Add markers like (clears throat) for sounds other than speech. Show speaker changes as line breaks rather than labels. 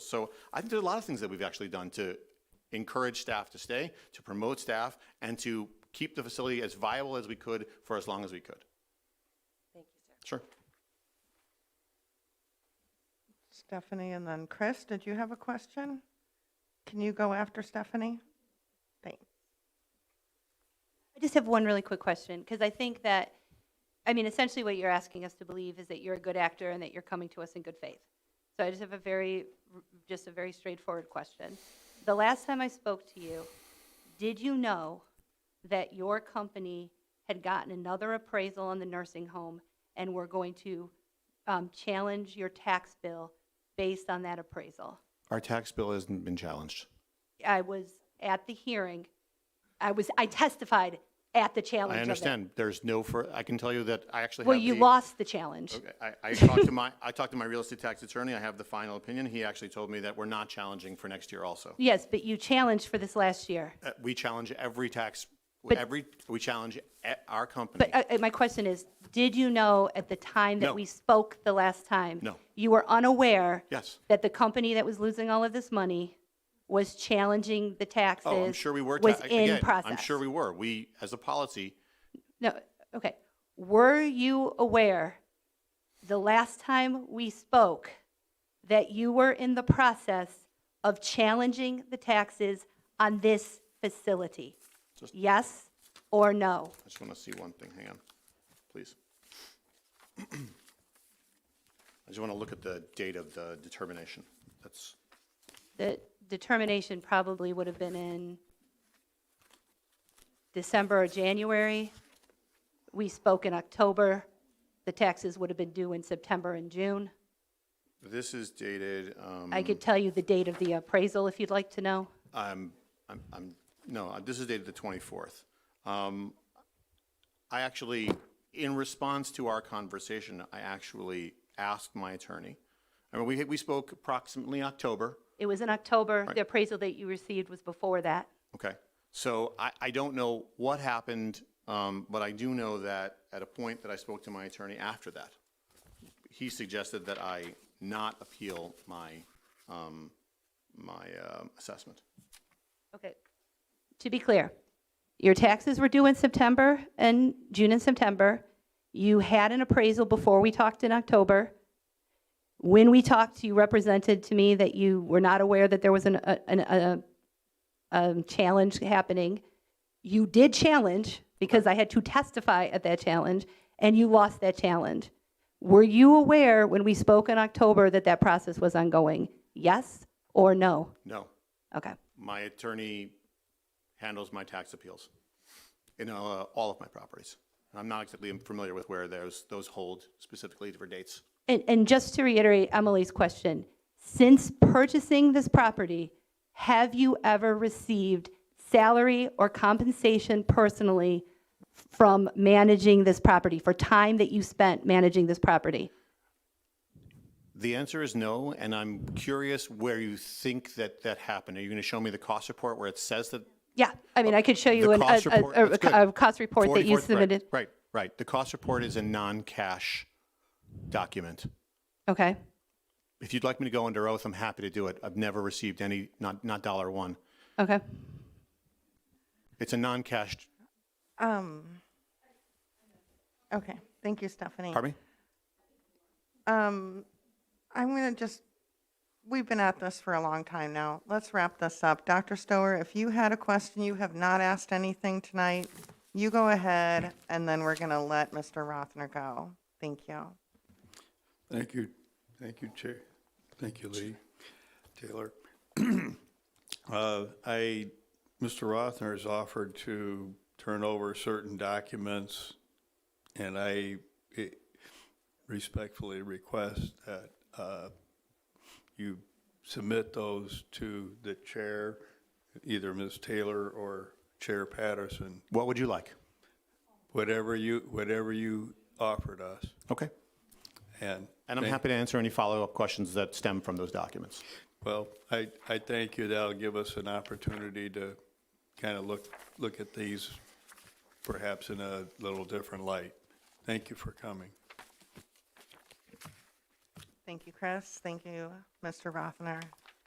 So I think there's a lot of things that we've actually done to encourage staff to stay, to promote staff, and to keep the facility as viable as we could for as long as we could.
Thank you, sir.
Sure.
Stephanie and then Chris, did you have a question? Can you go after Stephanie? Thanks.
I just have one really quick question, because I think that, I mean, essentially what you're asking us to believe is that you're a good actor and that you're coming to us in good faith. So I just have a very, just a very straightforward question. The last time I spoke to you, did you know that your company had gotten another appraisal on the nursing home and were going to um, challenge your tax bill based on that appraisal?
Our tax bill hasn't been challenged.
I was at the hearing. I was, I testified at the challenge of
I
it.
understand. There's no, fur- I can tell you that I actually have
Well, you
the-
lost the challenge.
Okay, I, I talked to my, I talked to my real estate tax attorney. I have the final opinion. He actually told me that we're not challenging for next year also.
Yes, but you challenged for this last year.
Uh, We challenge every tax, every, we challenge e- our company.
But uh, uh, my question is, did you know at the time
No.
that we spoke the last time?
No.
You were unaware?
Yes.
That the company that was losing all of this money was challenging the taxes?
Oh, I'm sure we were. ta-
Was
again,
in process?
I'm sure we were. We, as a policy,
No, okay. Were you aware, the last time we spoke, that you were in the process of challenging the taxes on this facility?
Just-
Yes or no?
I just want to see one thing. Hang on, please. (clears throat) I just want to look at the date of the determination. That's,
The determination probably would have been in December or January. We spoke in October. The taxes would have been due in September and June.
this is dated, um,
I could tell you the date of the appraisal if you'd like to know.
I'm, I'm, I'm, no, uh, this is dated the 24th. Um, I actually, in response to our conversation, I actually asked my attorney. I mean, we, we spoke approximately October.
It was in October. The appraisal that you received was before that.
Okay. So I, I don't know what happened, um, but I do know that at a point that I spoke to my attorney after that, he suggested that I not appeal my, um, my, um, assessment.
Okay. To be clear, your taxes were due in September and June and September. You had an appraisal before we talked in October. When we talked, you represented to me that you were not aware that there was an, a, an- a, um, challenge happening. You did challenge because I had to testify at that challenge and you lost that challenge. Were you aware when we spoke in October that that process was ongoing? Yes or no?
No.
Okay.
My attorney handles my tax appeals in uh, all of my properties. I'm not exactly familiar with where those, those hold specifically for dates.
And, and just to reiterate Emily's question, since purchasing this property, have you ever received salary or compensation personally from managing this property, for time that you spent managing this property?
The answer is no, and I'm curious where you think that that happened. Are you going to show me the cost report where it says that?
Yeah, I mean, I could show you
The
an- a,
cost report-
a-
that's good.
a, a cost report that you
44th right,
submitted.
Right, right. The cost report is a non-cash document.
Okay,
If you'd like me to go under oath, I'm happy to do it. I've never received any, not, not dollar one.
okay.
It's a non-cash,
Um, okay, thank you, Stephanie.
pardon me?
Um, I'm going to just, we've been at this for a long time now. Let's wrap this up. Dr. Stower, if you had a question, you have not asked anything tonight, you go ahead, and then we're going to let Mr. Rothner go. Thank you.
Thank you, thank you, Chair. Thank you, Lee Taylor. (clears throat) Uh, I, Mr. Rothner has offered to turn over certain documents, and I eh, respectfully request that uh, you submit those to the Chair, either Ms. Taylor or Chair Patterson,
What would you like?
whatever you, whatever you offered us,
Okay.
and.
And I'm
thank-
happy to answer any follow-up questions that stem from those documents.
Well, I, I thank you. That'll give us an opportunity to kind of look, look at these perhaps in a little different light. Thank you for coming.
Thank you, Chris. Thank you, Mr. Rothner.